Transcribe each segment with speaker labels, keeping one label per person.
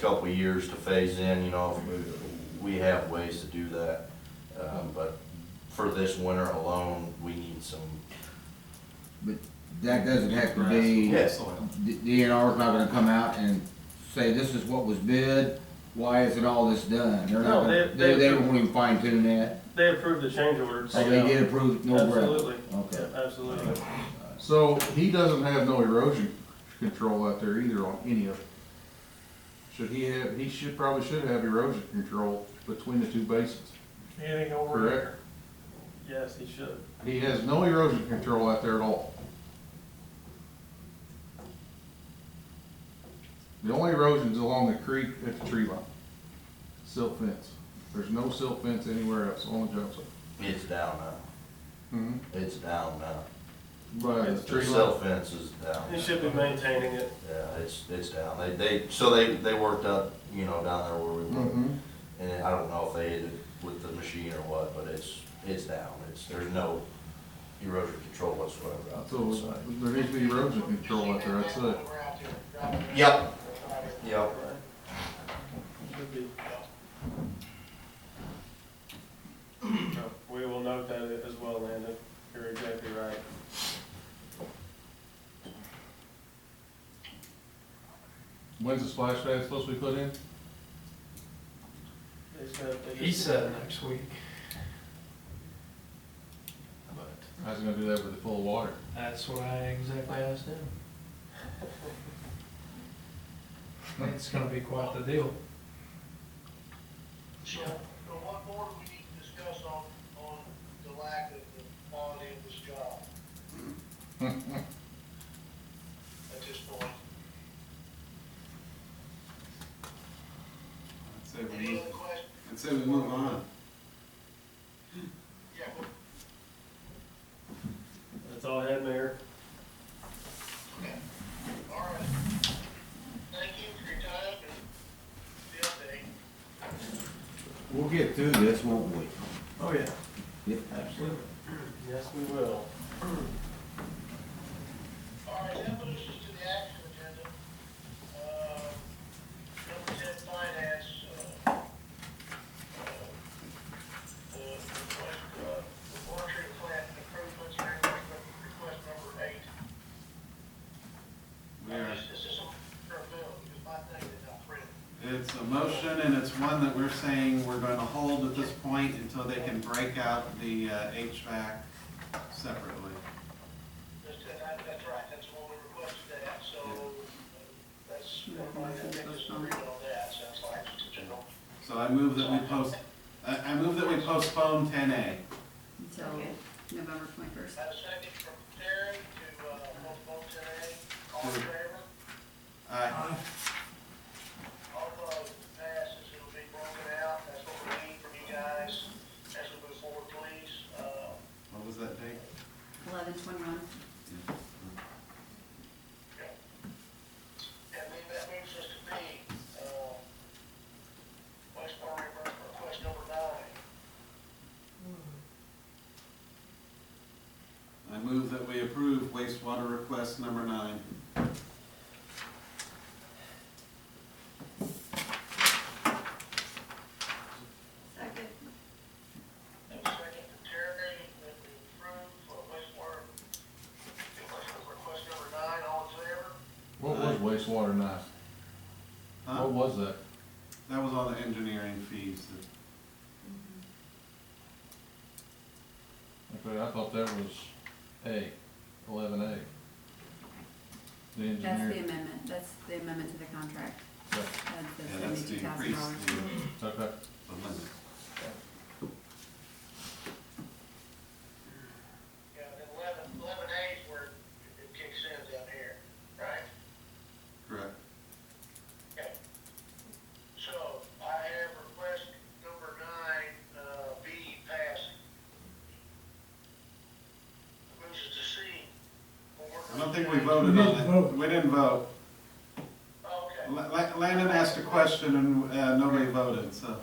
Speaker 1: couple of years to phase in, you know, if we, we have ways to do that. Um, but for this winter alone, we need some,
Speaker 2: But that doesn't have to be,
Speaker 1: Yes.
Speaker 2: D- DNR's not gonna come out and say, this is what was bid, why isn't all this done? They're not,
Speaker 3: No,
Speaker 2: gonna- they,
Speaker 3: they-
Speaker 2: they
Speaker 3: they-
Speaker 2: won't even fine tune that,
Speaker 3: They approved the change order.
Speaker 2: so Oh, they did approve no gravel.
Speaker 3: Absolutely,
Speaker 2: Okay.
Speaker 3: Yeah, absolutely.
Speaker 4: So he doesn't have no erosion control out there either on any of it. Should he have, he should, probably should have erosion control between the two basins.
Speaker 3: Anything
Speaker 4: over there?
Speaker 3: Yes, he should.
Speaker 4: He has no erosion control out there at all. The only erosion's along the creek at the tree line. Silt fence. There's no silt fence anywhere else on the job site.
Speaker 1: it's down now,
Speaker 2: Mm-hmm.
Speaker 1: it's down now.
Speaker 4: But the
Speaker 1: The
Speaker 4: tree line,
Speaker 1: cell fence is down.
Speaker 3: He should be maintaining it.
Speaker 1: Yeah, it's, it's down. They, they, so they, they worked up, you know, down there where we were.
Speaker 4: Mhm.
Speaker 1: And I don't know if they hit it with the machine or what, but it's, it's down. It's, there's no erosion control whatsoever out there. on the
Speaker 4: so
Speaker 1: site.
Speaker 4: there needs to be erosion control out there, that's it.
Speaker 1: Yep, yep.
Speaker 3: Should be. No, We will note that as well, Landon. You're exactly right.
Speaker 4: When's the splash pad supposed to be put in?
Speaker 3: They said they
Speaker 5: He
Speaker 3: just-
Speaker 5: said next week. But
Speaker 4: I was gonna do that with the full of water.
Speaker 5: that's what I exactly asked him. It's gonna be quite the deal.
Speaker 6: So, so what more do we need to discuss on, on the lack of the quality of this job? At this point,
Speaker 7: I'd say we
Speaker 6: any
Speaker 7: move,
Speaker 6: other questions?
Speaker 7: I'd say we move on.
Speaker 6: Yeah, well,
Speaker 3: That's all I had, Mayor.
Speaker 6: all right. Thank you for your time and the update.
Speaker 2: We'll get through this, won't we?
Speaker 3: Oh, yeah.
Speaker 2: Yeah.
Speaker 3: Absolutely. Yes, we will.
Speaker 6: All right, that moves us to the action agenda. Uh, Number ten, finance, uh, uh, the request, uh, the water plant improvements, and request number eight.
Speaker 7: We are,
Speaker 6: This this is a, fair bill, because my thing is not printed.
Speaker 7: it's a motion and it's one that we're saying we're gonna hold at this point until they can break out the uh, HVAC separately.
Speaker 6: That's, that- that's right, that's what we requested that, so uh, that's, I think it's agreed on that, sounds like, it's a general.
Speaker 7: So I move that we post, I, I move that we postpone ten A.
Speaker 8: until November twenty-first.
Speaker 6: Had a second from Terry to, uh, vote today, all in favor?
Speaker 7: I,
Speaker 6: Although passes, it'll be broken out, that's what we need from you guys as we move forward, please. Uh,
Speaker 7: what was that date?
Speaker 8: Eleven twenty-one.
Speaker 6: yeah. And then that moves us to B, uh, Westmore reimbursement request number nine.
Speaker 7: I move that we approve wastewater request number nine.
Speaker 8: Second.
Speaker 6: And second to Terry, that we approve uh, wastewater reimbursement request number nine, all in favor?
Speaker 4: What was wastewater nice?
Speaker 7: Huh?
Speaker 4: What was that?
Speaker 7: That was all the engineering fees that
Speaker 4: Okay, I thought that was A, eleven A. The
Speaker 8: That's the
Speaker 4: engineer.
Speaker 8: amendment, that's the amendment to the contract,
Speaker 4: Yeah,
Speaker 8: that's the
Speaker 7: Yeah, that's to
Speaker 8: seventy-two thousand
Speaker 7: increase
Speaker 8: dollars.
Speaker 7: the,
Speaker 4: Okay,
Speaker 7: the limit.
Speaker 6: Yeah, then eleven, eleven A is where it kicks in down here, right?
Speaker 7: Correct.
Speaker 6: Okay. So I have request number nine, uh, B passing. Moves us to C.
Speaker 7: I don't think we voted on that. We didn't vote.
Speaker 6: Okay,
Speaker 7: La- La- Landon asked a question and uh, nobody voted, so.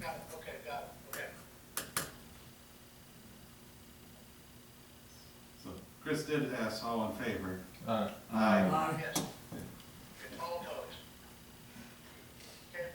Speaker 6: got it, okay, got it, okay.
Speaker 7: So Chris did ask all in favor.
Speaker 4: alright.
Speaker 7: Aye.
Speaker 6: Yes.